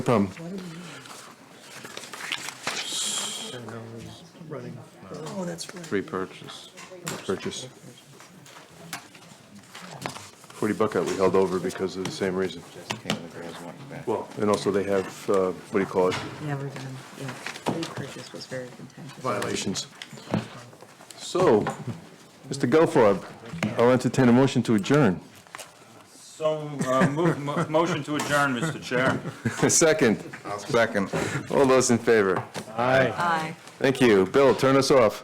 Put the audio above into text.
problem. running. Oh, that's right. Repurchase. Purchase. 40 buckout we held over because of the same reason. Well, and also they have, uh, what do you call it, Never done, yeah. Repurchase was very contentious. violations. So, Mr. Gelfarb, I'll entertain a motion to adjourn. So, uh, move- mo- motion to adjourn, Mr. Chair. Second, Second. all those in favor. Aye. Thank you. Bill, turn us off.